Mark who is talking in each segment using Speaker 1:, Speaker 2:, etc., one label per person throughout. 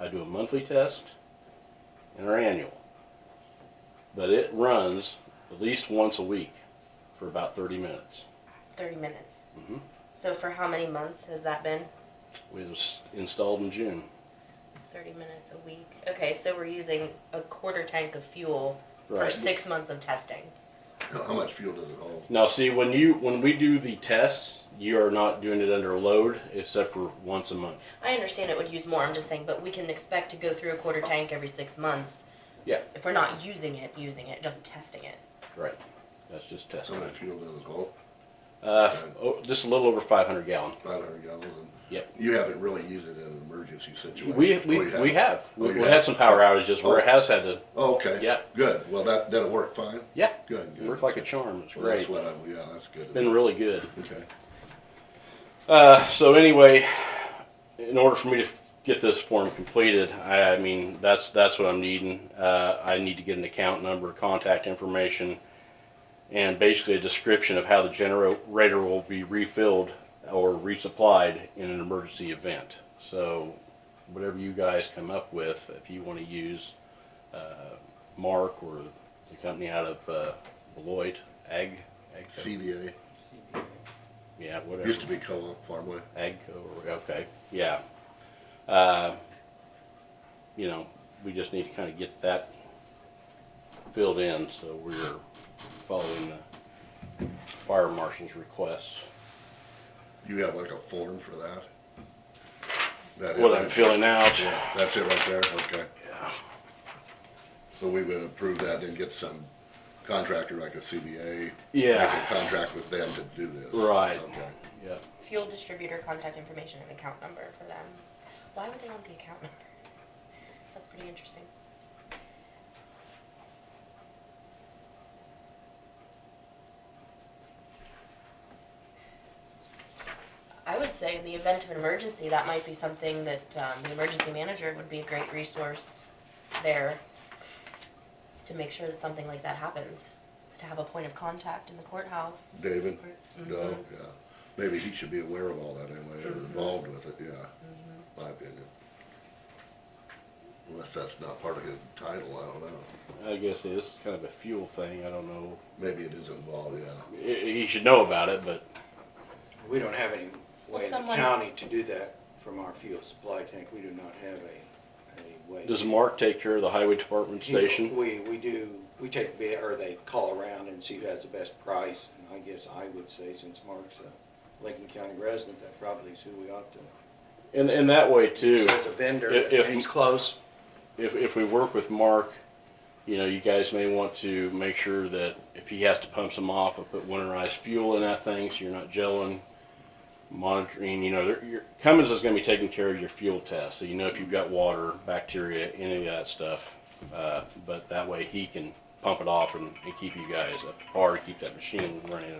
Speaker 1: I do a monthly test and an annual. But it runs at least once a week for about 30 minutes.
Speaker 2: Thirty minutes.
Speaker 1: Mhm.
Speaker 2: So for how many months has that been?
Speaker 1: It was installed in June.
Speaker 2: Thirty minutes a week. Okay, so we're using a quarter tank of fuel for
Speaker 1: Right.
Speaker 2: six months of testing.
Speaker 3: How how much fuel does it hold?
Speaker 1: Now, see, when you when we do the tests, you are not doing it under load except for once a month.
Speaker 2: I understand it would use more, I'm just saying, but we can expect to go through a quarter tank every six months.
Speaker 1: Yeah.
Speaker 2: If we're not using it, using it, just testing it.
Speaker 1: Right. That's just
Speaker 3: So
Speaker 1: testing.
Speaker 3: much fuel does it hold?
Speaker 1: Uh, f- oh, just a little over 500 gallon.
Speaker 3: Five hundred gallons and.
Speaker 1: Yep.
Speaker 3: You haven't really used it in an emergency situation.
Speaker 1: We
Speaker 3: Oh,
Speaker 1: we,
Speaker 3: you haven't?
Speaker 1: we have
Speaker 3: Oh,
Speaker 1: we,
Speaker 3: you
Speaker 1: we
Speaker 3: have?
Speaker 1: had some power outages where it has had to
Speaker 3: Oh, Okay.
Speaker 1: Yeah.
Speaker 3: Good. Well, that, that'll work fine.
Speaker 1: yeah
Speaker 3: Good, good.
Speaker 1: work like a charm. It's
Speaker 3: Well, that's
Speaker 1: great.
Speaker 3: what I, yeah, that's good.
Speaker 1: Been really good.
Speaker 3: Okay.
Speaker 1: Uh, so anyway, in order for me to get this form completed, I, I mean, that's, that's what I'm needing. Uh, I need to get an account number, contact information, and basically a description of how the generator will be refilled or resupplied in an emergency event. So whatever you guys come up with, if you want to use, uh, Mark or the company out of, uh, Beloit, Ag, Agco,
Speaker 3: CBA,
Speaker 1: yeah, whatever.
Speaker 3: used to be co-op farmway.
Speaker 1: Agco, or- okay, yeah. Uh, You know, we just need to kind of get that filled in, so we're following the fire marshal's requests.
Speaker 3: You have like a form for that? Is that it
Speaker 1: What
Speaker 3: right
Speaker 1: I'm filling out,
Speaker 3: there? Yeah, that's it right there, okay.
Speaker 1: Yeah.
Speaker 3: So we would approve that, then get some contractor like a CBA.
Speaker 1: yeah,
Speaker 3: make a Contract with them to do this.
Speaker 1: Right.
Speaker 3: Okay.
Speaker 1: yeah.
Speaker 2: Fuel distributor contact information and account number for them. Why would they want the account number? That's pretty interesting. I would say in the event of an emergency, that might be something that, um, the emergency manager would be a great resource there to make sure that something like that happens, to have a point of contact in the courthouse.
Speaker 3: David, no,
Speaker 2: Mhm.
Speaker 3: yeah. Maybe he should be aware of all that anyway, or involved with it, yeah, my opinion. Unless that's not part of his title, I don't know.
Speaker 1: I guess it's kind of a fuel thing, I don't know.
Speaker 3: Maybe it is involved, yeah.
Speaker 1: I- He should know about it, but
Speaker 4: We don't have any
Speaker 2: Well,
Speaker 4: way in the
Speaker 2: someone-
Speaker 4: county to do that from our fuel supply tank. We do not have a, a way.
Speaker 1: does Mark take care of the highway department station?
Speaker 4: We, we do, we take bid, or they call around and see who has the best price. And I guess I would say, since Mark's a Lincoln County resident, that probably is who we ought to.
Speaker 1: And, and that way too.
Speaker 4: use As a vendor,
Speaker 1: If-
Speaker 4: if
Speaker 1: if-
Speaker 4: he's close,
Speaker 1: if, if we work with Mark, you know, you guys may want to make sure that if he has to pump some off, or put winterized fuel in that thing, so you're not gelling, monitoring, you know, there- your, Cummins is gonna be taking care of your fuel test, so you know if you've got water, bacteria, any of that stuff. Uh, but that way he can pump it off and, and keep you guys up to par, keep that machine running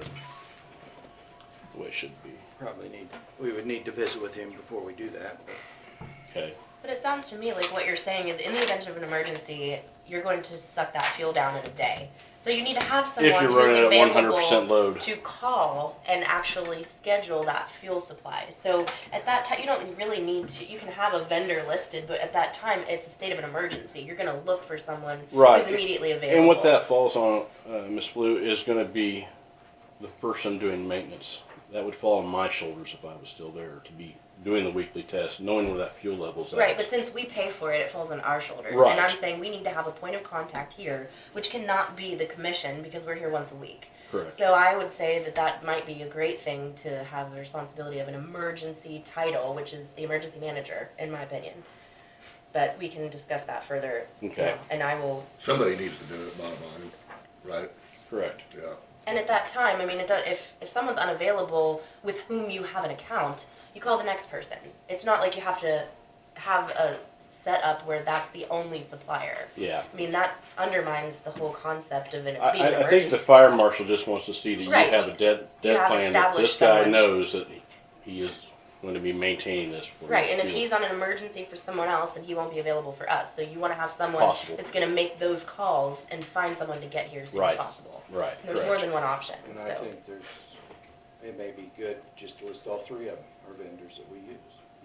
Speaker 1: the way it should be,
Speaker 4: probably need, we would need to visit with him before we do that. but
Speaker 1: okay?
Speaker 2: But it sounds to me like what you're saying is in the event of an emergency, you're going to suck that fuel down in a day. So you need to have someone
Speaker 1: If you're
Speaker 2: who's
Speaker 1: running at one hundred percent
Speaker 2: available
Speaker 1: load.
Speaker 2: to call and actually schedule that fuel supply. So at that time, you don't really need to, you can have a vendor listed, but at that time, it's a state of an emergency. You're gonna look for someone
Speaker 1: Right.
Speaker 2: who's immediately available.
Speaker 1: And what that falls on, uh, Ms. Blue, is gonna be the person doing maintenance. That would fall on my shoulders if I was still there to be doing the weekly test, knowing where that fuel level's at.
Speaker 2: Right, but since we pay for it, it falls on our shoulders.
Speaker 1: Right.
Speaker 2: And I'm saying we need to have a point of contact here, which cannot be the commission because we're here once a week.
Speaker 1: Correct.
Speaker 2: So I would say that that might be a great thing to have the responsibility of an emergency title, which is the emergency manager, in my opinion. But we can discuss that further. you
Speaker 1: Okay.
Speaker 2: know, And I will,
Speaker 3: Somebody needs to do it, bottom line, right?
Speaker 1: Correct.
Speaker 3: Yeah.
Speaker 2: and at that time, I mean, it does, if, if someone's unavailable with whom you have an account, you call the next person. It's not like you have to have a setup where that's the only supplier.
Speaker 1: Yeah.
Speaker 2: I mean, that undermines the whole concept of an
Speaker 1: I,
Speaker 2: being an
Speaker 1: I, I
Speaker 2: emergency.
Speaker 1: think the fire marshal just wants to see that you
Speaker 2: Right.
Speaker 1: have a dead,
Speaker 2: You
Speaker 1: dead
Speaker 2: have
Speaker 1: plan, that this
Speaker 2: established
Speaker 1: guy
Speaker 2: someone.
Speaker 1: knows that he- he is going to be maintaining this. for
Speaker 2: Right,
Speaker 1: his
Speaker 2: and if
Speaker 1: fuel.
Speaker 2: he's on an emergency for someone else, then he won't be available for us. So you want to have someone
Speaker 1: Possible.
Speaker 2: that's going to make those calls and find someone to get here as soon as
Speaker 1: Right.
Speaker 2: possible.
Speaker 1: Right,
Speaker 2: And there's more
Speaker 1: correct.
Speaker 2: than one option.
Speaker 4: And I
Speaker 2: So
Speaker 4: think there's, it may be good just to list all three of them, our vendors that we use.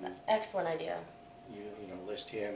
Speaker 4: You-
Speaker 2: excellent idea.
Speaker 4: You, you know, list him,